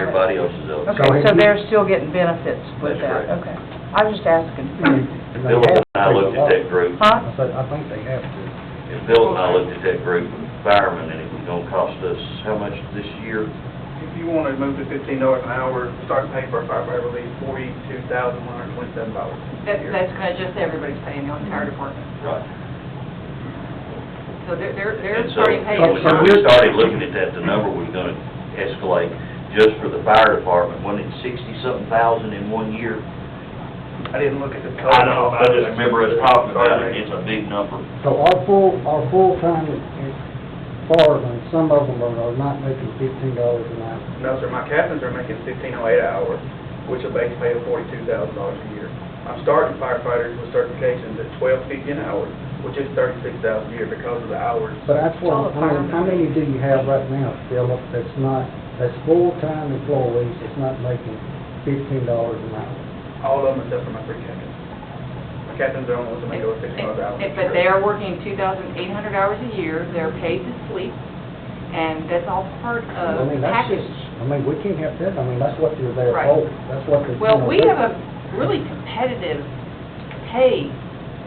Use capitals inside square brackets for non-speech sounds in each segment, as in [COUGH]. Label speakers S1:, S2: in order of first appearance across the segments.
S1: Everybody else is eligible.
S2: Go
S3: Okay, so
S2: ahead.
S3: they're still getting benefits with
S1: That's
S3: that,
S1: correct.
S3: okay. I was just asking.
S1: Bill and I looked at that group,
S3: Huh?
S2: I said, I think they have to.
S1: if Bill and I looked at that group of firemen, and it was gonna cost us how much this year?
S4: If you want to move to fifteen dollars an hour, start paying for a firefighter relief, forty-two thousand one hundred twenty-seven dollars.
S5: That, that's kind of just everybody's paying, the entire department.
S1: Right.
S5: So they're, they're,
S1: And
S5: they're
S1: so,
S5: starting paying.
S1: when we started looking at that, the number was gonna escalate just for the fire department, wasn't it sixty-something thousand in one year?
S4: I didn't look at the total.
S1: I know, I just remember us talking about it, it's a big number.
S2: So our full, our full-time firemen, some of them are are not making fifteen dollars an hour.
S4: No, sir, my captains are making fifteen oh eight an hour, which a base pay of forty-two thousand dollars a year. I'm starting firefighters with certifications at twelve fifty an hour, which is thirty-six thousand a year because of the hours.
S2: But that's
S3: All
S2: what,
S3: the
S2: I mean, how many do you have right now, Philip, that's not, that's full-time employees, that's not making fifteen dollars an hour?
S4: All of them except for my three captains. My captains are only making over fifteen dollars an hour.
S5: If- But they are working two thousand eight hundred hours a year, they're paid to sleep, and that's all part
S3: Uh,
S2: I
S5: of
S2: mean, that's
S5: package.
S2: just, I mean, we can't have that, I mean, that's what they're there
S5: Right.
S2: for, that's what they're.
S5: Well,
S2: gonna
S5: we
S2: do.
S5: have a really competitive pay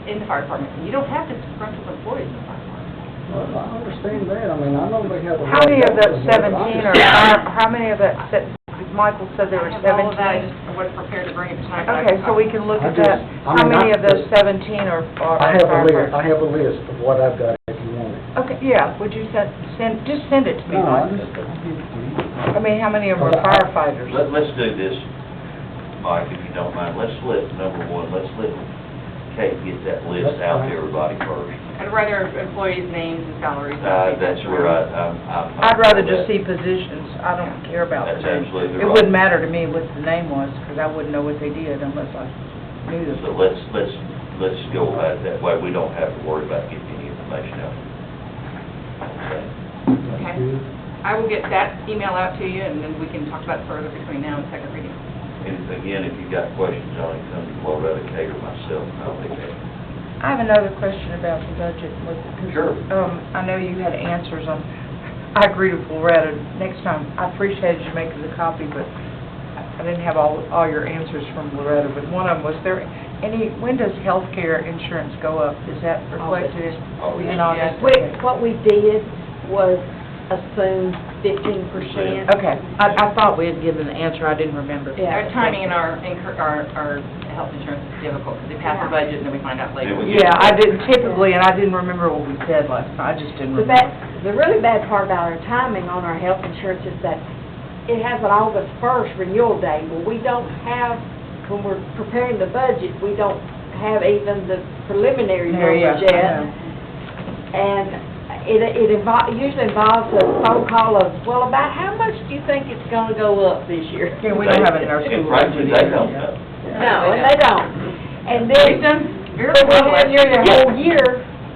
S5: in the fire department, you don't have to disgruntled employees in the fire department.
S2: Well, I understand that, I mean, I know they have a.
S3: How many of
S2: that
S3: those seventeen are, fire- how many of that, se- Michael said there
S5: I
S3: were
S5: have all of that, I
S3: seventeen?
S5: just wasn't prepared to bring it tonight. but I-
S3: Okay, so we can look
S2: I
S3: at
S2: just-
S3: that.
S2: I
S3: How
S2: mean,
S3: many
S2: I-
S3: of those seventeen are are
S2: I have a list, I
S3: firefighters?
S2: have a list of what I've got if you want it.
S3: Okay, yeah, would you send, send, just send it to me,
S2: No, I
S3: Mike.
S2: just, I'll give it to you.
S3: I mean, how many of them are
S2: Well, I-
S3: firefighters?
S1: Let, let's do this, Mike, if you don't mind, let's let, number one, let's let Kate get that list out to everybody first.
S5: I'd rather employees' names and salaries.
S1: Uh, that's where I, I'm, I'm.
S3: I'd rather just see positions, I don't care about the
S1: That's
S3: name.
S1: absolutely
S3: It
S1: right.
S3: wouldn't matter to me what the name was, because I wouldn't know what they did unless I knew them.
S1: So let's, let's, let's go about it that way, we don't have to worry about getting any information out. Okay?
S2: That's
S5: Okay.
S2: good.
S5: I will get that email out to you, and then we can talk about it further between now and second reading.
S1: And again, if you've got questions on it, come to Loretta Kate or myself, and I'll be there.
S3: I have another question about the budget. with- 'cause,
S1: Sure.
S3: Um, I know you had answers on, I agree with Loretta, next time, I appreciated you making the copy, but I didn't have all, all your answers from Loretta, but one of them was there, any, when does healthcare insurance go up? Is that reflected
S1: August.
S3: in August?
S6: We, what we did was assume fifteen percent.
S3: Okay, I, I thought we had given the answer, I didn't remember.
S6: Yeah.
S5: Our timing and our, incur- our, our health insurance is difficult, because they pass the budget and then we find out
S1: It
S5: later.
S1: was-
S3: Yeah, I didn't typically, and I didn't remember what we said last night, I just didn't
S6: The
S3: remember.
S6: bad, the really bad part about our timing on our health insurance is that it has an August first renewal date. Well, we don't have, when we're preparing the budget, we don't have even the preliminary
S3: There, yeah,
S6: numbers
S3: I
S6: yet.
S3: know.
S6: And it, it invo- usually involves a phone call of, well, about how much do you think it's gonna go up this
S3: [LAUGHS]
S6: year?
S3: Yeah, we don't have it in our school.
S1: And frankly, they don't know.
S6: No, and they don't. And then.
S5: We've done very
S6: But
S5: well.
S6: then you're the whole year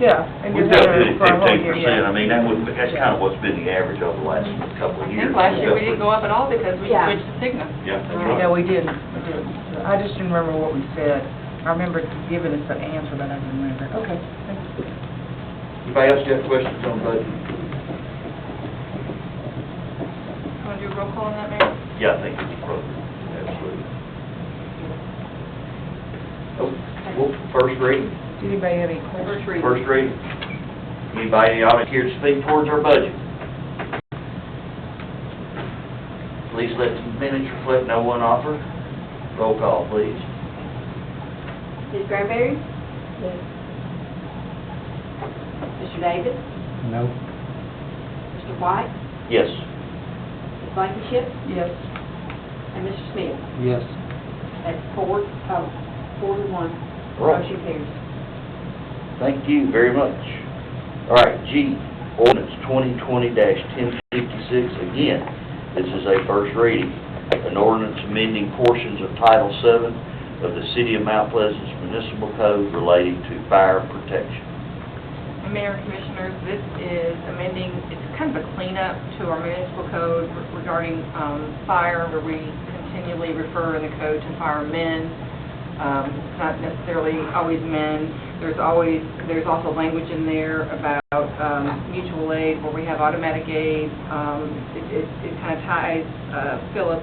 S3: Yeah. and
S1: We've
S3: you're
S1: done
S3: there
S1: good at
S3: for a whole
S1: fifteen
S3: year,
S1: percent,
S3: yeah.
S1: I mean, that would, that's kind of what's been the average over the last couple
S5: I
S1: of years.
S5: think last year we didn't go up at all because we
S6: Yeah.
S5: switched to Cigna.
S1: Yeah, that's right.
S3: No, we didn't, we didn't. I just didn't remember what we said. I remember giving us an answer, but I didn't remember. Okay.
S1: Anybody else got questions on budget?
S5: Want to do a roll call on that, Mayor?
S1: Yeah, I think it's appropriate, absolutely. Oh, well, first reading,
S3: Did anybody have any questions?
S5: First reading.
S1: first reading. Anybody in the audience here to speak towards our budget? Please let the minutes reflect no one offer. Roll call, please.
S6: Ms. Granberry? Yes. Mr. Davis?
S2: No.
S6: Mr. White?
S1: Yes.
S6: Ms. Blankenship?
S3: Yes.
S6: And Mr. Smith?
S2: Yes.
S6: That's four, oh, four to one. Motion carries.
S1: Thank you very much. All right, G, ordinance twenty twenty ten fifty-six, again, this is a first reading. An ordinance amending portions of Title VII of the City of Mount Pleasant's Municipal Code relating to fire protection.
S5: And Mayor and Commissioners, this is amending, it's kind of a cleanup to our municipal code regarding um, fire, where we continually refer in the code to firemen. Um, It's not necessarily always men. There's always, there's also language in there about um, mutual aid, where we have automatic aid. Um, It it- it kind of ties uh, Philip